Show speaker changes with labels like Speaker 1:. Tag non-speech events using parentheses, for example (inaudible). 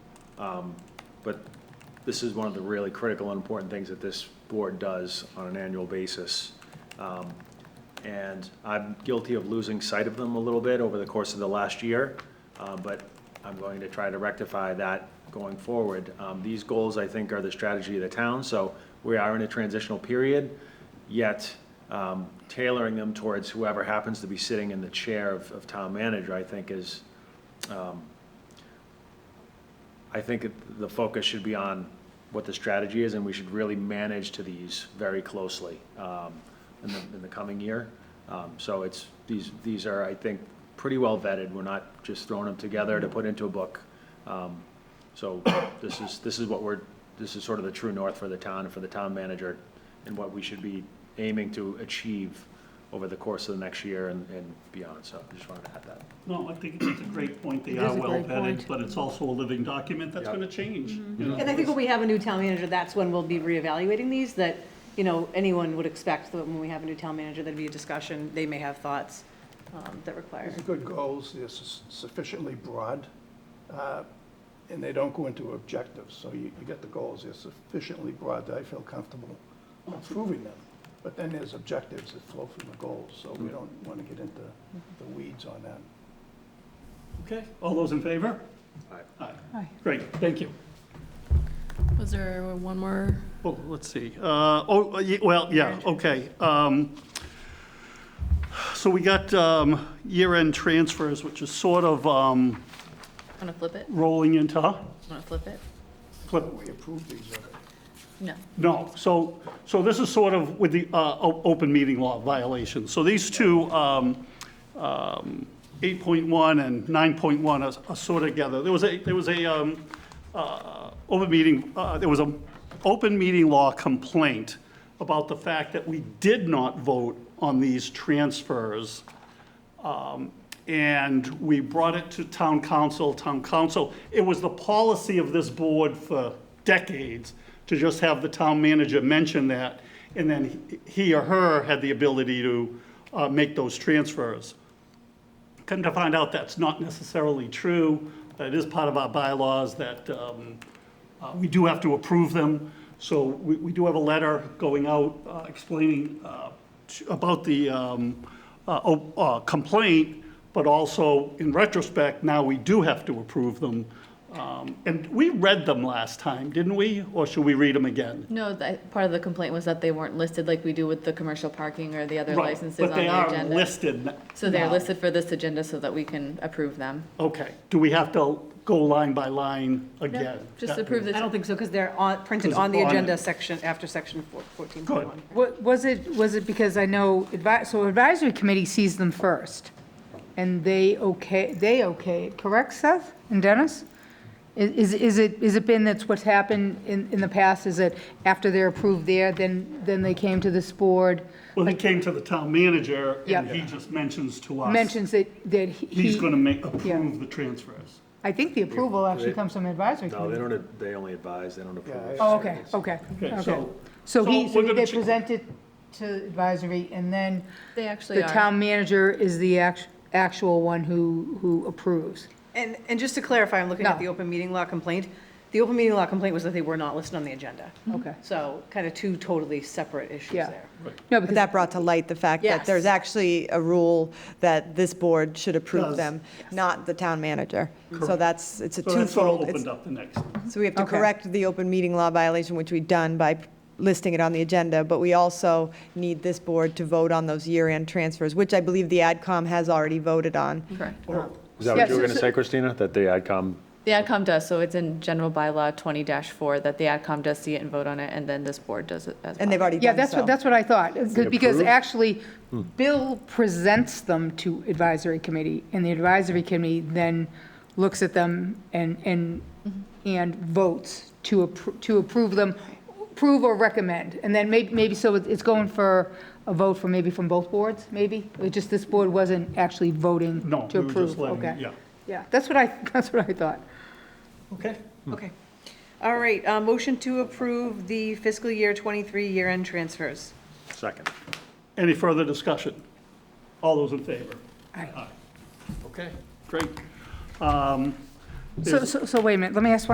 Speaker 1: Um, But this is one of the really critical and important things that this board does on an annual basis. Um, And I'm guilty of losing sight of them a little bit over the course of the last year, uh, but I'm going to try to rectify that going forward. Um, These goals, I think, are the strategy of the town, so we are in a transitional period, yet um, tailoring them towards whoever happens to be sitting in the chair of, of town manager, I think is, um, I think it- the focus should be on what the strategy is, and we should really manage to these very closely um, in the, in the coming year. Um, So it's, these, these are, I think, pretty well vetted. We're not just throwing them together to put into a book. Um, So this is, this is what we're, this is sort of the true north for the town and for the town manager and what we should be aiming to achieve over the course of the next year and, and beyond. So I just wanted to add that.
Speaker 2: No, I think it's a great point. They
Speaker 3: It is
Speaker 2: are
Speaker 3: a
Speaker 2: well
Speaker 3: great
Speaker 2: vetted,
Speaker 3: point. Mm-hmm.
Speaker 2: but it's also a living document that's
Speaker 1: Yeah.
Speaker 2: going to change. you know.
Speaker 3: And I think when we have a new town manager, that's when we'll be reevaluating these, that, you know, anyone would expect that when we have a new town manager, there'd be a discussion, they may have thoughts um, that require.
Speaker 4: These are good goals, they're su- sufficiently broad, uh, and they don't go into objectives, so you, you get the goals, they're sufficiently broad that I feel comfortable approving them. But then there's objectives that flow from the goals, so we don't want to get into the weeds on that.
Speaker 2: Okay, all those in favor?
Speaker 1: Aye.
Speaker 2: Aye. Great, thank you.
Speaker 5: Was there one more?
Speaker 2: Well, Oh, let's see. Uh, Oh, y- well, yeah, okay. Um, So we got um, year-end transfers, which is sort of um,
Speaker 5: Want to flip it?
Speaker 2: rolling into, huh?
Speaker 5: Want to flip it?
Speaker 2: Flip.
Speaker 4: We approve these, uh,
Speaker 5: No.
Speaker 2: No, so, so this is sort of with the uh, o- open meeting law violation. So these two, um, um, 8.1 and 9.1 are- are sort of together. There was a, there was a um, uh, open meeting, uh, there was an open meeting law complaint about the fact that we did not vote on these transfers and we brought it to town council, town council. It was the policy of this board for decades to just have the town manager mention that, and then he- he or her had the ability to uh, make those transfers. Come to find out, that's not necessarily true, that it is part of our bylaws, that um, uh, we do have to approve them. So we we do have a letter going out uh, explaining uh, t- about the um, uh, o- uh, complaint, but also in retrospect, now we do have to approve them. Um, And we read them last time, didn't we? Or should we read them again?
Speaker 5: No, that, part of the complaint was that they weren't listed like we do with the commercial parking or the other
Speaker 2: Right,
Speaker 5: licenses on the
Speaker 2: But they
Speaker 5: agenda.
Speaker 2: are listed. n-
Speaker 5: So they're
Speaker 2: now.
Speaker 5: listed for this agenda so that we can approve them.
Speaker 2: Okay. Do we have to go line by line again?
Speaker 5: Just
Speaker 2: That-
Speaker 5: approve
Speaker 3: I
Speaker 5: this.
Speaker 3: don't think so, because they're on, printed
Speaker 2: 'Cause
Speaker 3: on the
Speaker 2: on-
Speaker 3: agenda section, after section four- 14.1.
Speaker 2: Good.
Speaker 6: Wa- Was it, was it because I know, advi- so advisory committee sees them first, and they okay, they okay, it, correct, Seth and Dennis? I- Is, is it, is it been that's what's happened in, in the past, is that after they're approved there, then, then they came to this board,
Speaker 2: Well, he came to the town manager, and
Speaker 6: Yep.
Speaker 2: he just mentions to us.
Speaker 6: mentions that, that
Speaker 2: He's
Speaker 6: he,
Speaker 2: gonna make,
Speaker 6: Yeah.
Speaker 2: approve the transfers.
Speaker 6: I think the approval actually comes from advisory
Speaker 1: No, they
Speaker 6: committee.
Speaker 1: don't, they only advise, they don't approve.
Speaker 6: Oh, okay, okay, okay.
Speaker 2: so-
Speaker 6: So
Speaker 2: so
Speaker 6: he,
Speaker 2: we're
Speaker 6: so
Speaker 2: gonna
Speaker 6: they
Speaker 2: ch-
Speaker 6: present it to advisory, and then
Speaker 5: They actually
Speaker 6: The
Speaker 5: are.
Speaker 6: town manager is the act- actual one who, who approves.
Speaker 3: And, and just to clarify, I'm looking at
Speaker 6: No.
Speaker 3: the open meeting law complaint. The open meeting law complaint was that they were not listed on the agenda.
Speaker 6: Okay.
Speaker 3: So kind of two totally separate issues
Speaker 6: Yeah.
Speaker 3: there.
Speaker 6: No,
Speaker 7: But
Speaker 6: because,
Speaker 7: that brought to light the fact that there's
Speaker 3: Yes.
Speaker 7: actually a rule that this board should
Speaker 2: Does.
Speaker 7: approve them, not the town manager. So
Speaker 2: Correct.
Speaker 7: that's, it's a
Speaker 2: So that's all
Speaker 7: twofold. it's-
Speaker 2: opened up the next.
Speaker 7: So we have to
Speaker 6: Okay.
Speaker 7: correct the open meeting law violation, which we've done by listing it on the agenda, but we also need this board to vote on those year-end transfers, which I believe the AdCom has already voted on.
Speaker 5: Correct.
Speaker 1: Is that
Speaker 6: Yeah,
Speaker 1: what you were
Speaker 6: so-
Speaker 1: going to say, Christina? That the AdCom
Speaker 5: The AdCom does, so it's in general bylaw twenty four that the AdCom does see it and vote on it, and then this board does it as well.
Speaker 7: And they've already done so.
Speaker 6: yeah, that's what, that's what I thought. Because
Speaker 1: approved?
Speaker 6: actually, Bill presents them to advisory committee, and the advisory committee then looks at them and, and, and votes to, appro- to approve them, approve or recommend. And then maybe, maybe, so it- it's going for a vote from, maybe from both boards, maybe? Or just this board wasn't actually voting
Speaker 2: No,
Speaker 6: to
Speaker 2: we were
Speaker 6: approve?
Speaker 2: just letting,
Speaker 6: Okay.
Speaker 2: yeah.
Speaker 6: Yeah, that's what I, (laughs) that's what I thought.
Speaker 2: Okay.
Speaker 3: Okay. All right, uh, motion to approve the fiscal year 23 year-end transfers.
Speaker 1: second?
Speaker 2: Any further discussion? All those in favor?
Speaker 6: Aye.
Speaker 2: Okay, great. Um,
Speaker 6: So,
Speaker 2: is-
Speaker 6: so, so wait a minute, let me ask one